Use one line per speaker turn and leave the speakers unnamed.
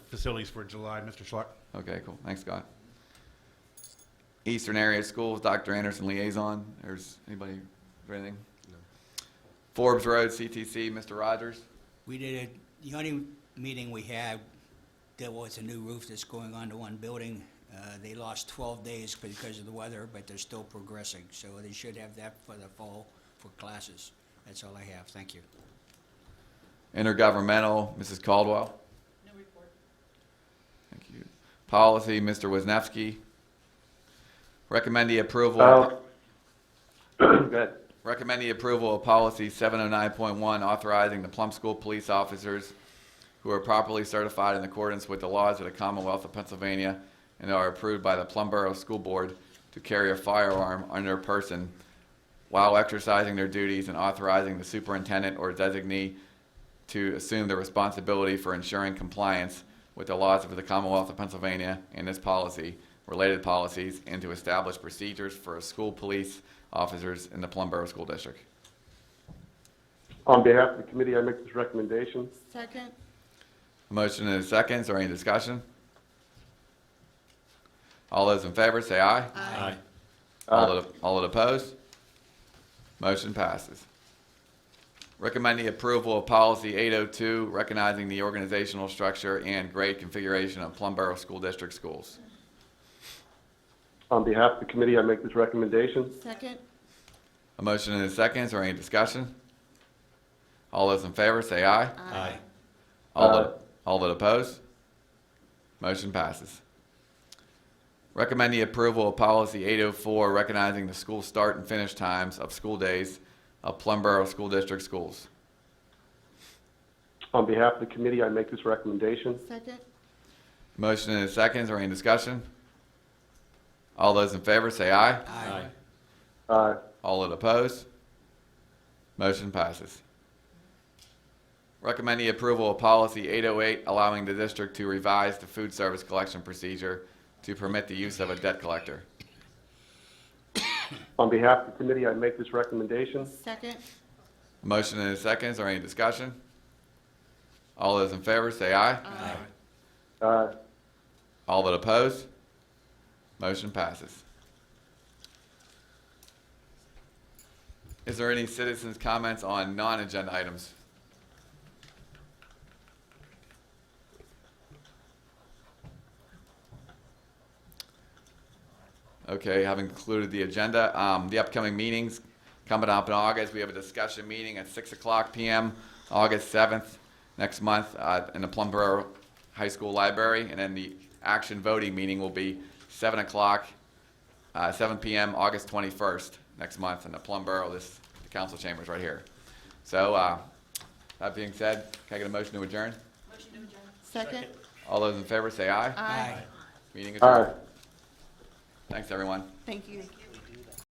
facilities for July. Mr. Schlock?
Okay, cool. Thanks, Scott. Eastern Area Schools, Dr. Anderson liaison. There's anybody, or anything? Forbes Road, CTC, Mr. Rogers.
We did, a- the only meeting we had, there was a new roof that's going on to one building. Uh, They lost 12 days because of the weather, but they're still progressing, so they should have that for the fall for classes. That's all I have, thank you.
Intergovernmental, Mrs. Caldwell.
No report.
Thank you. Policy, Mr. Wisniewski. Recommend the approval.
Uh, Good.
Recommend the approval of policy seven oh nine point one, authorizing the Plum School police officers who are properly certified in accordance with the laws of the Commonwealth of Pennsylvania and are approved by the Plum Borough School Board to carry a firearm on their person while exercising their duties and authorizing the superintendent or designee to assume the responsibility for ensuring compliance with the laws of the Commonwealth of Pennsylvania and this policy, related policies, and to establish procedures for school police officers in the Plum Borough School District.
On behalf of the committee, I make this recommendation.
Second?
A Motion and a second, is there any discussion? All those in favor, say aye.
Aye.
All that, all that opposed? Motion passes. Recommend the approval of policy 802, recognizing the organizational structure and grade configuration of Plum Borough School District schools.
On behalf of the committee, I make this recommendation.
Second?
A motion and a second, is there any discussion? All those in favor, say aye.
Aye.
All
Aye.
that, all that opposed? Motion passes. Recommend the approval of policy 804, recognizing the school start and finish times of school days of Plum Borough School District schools.
On behalf of the committee, I make this recommendation.
Second?
Motion and a second, is there any discussion? All those in favor say aye.
Aye.
Uh,
All that oppose? Motion passes. Recommend the approval of policy 808, allowing the district to revise the food service collection procedure to permit the use of a debt collector.
On behalf of the committee, I make this recommendation.
Second?
Motion and a second, is there any discussion? All those in favor say aye.
Aye.
Uh,
All that oppose? Motion passes. Is there any citizens' comments on non-agenda items? Okay, having concluded the agenda, um, the upcoming meetings coming up in August, we have a discussion meeting at six o'clock PM, August seventh, next month, uh, in the Plumboro High School Library, and then the action voting meeting will be seven o'clock, uh, seven PM, August twenty-first, next month, in the Plumboro, this, the council chambers right here. So, uh, that being said, can I get a motion to adjourn?
Second?
All those in favor say aye.
Aye.
Meeting
Aye.
adjourned. Thanks, everyone.
Thank you.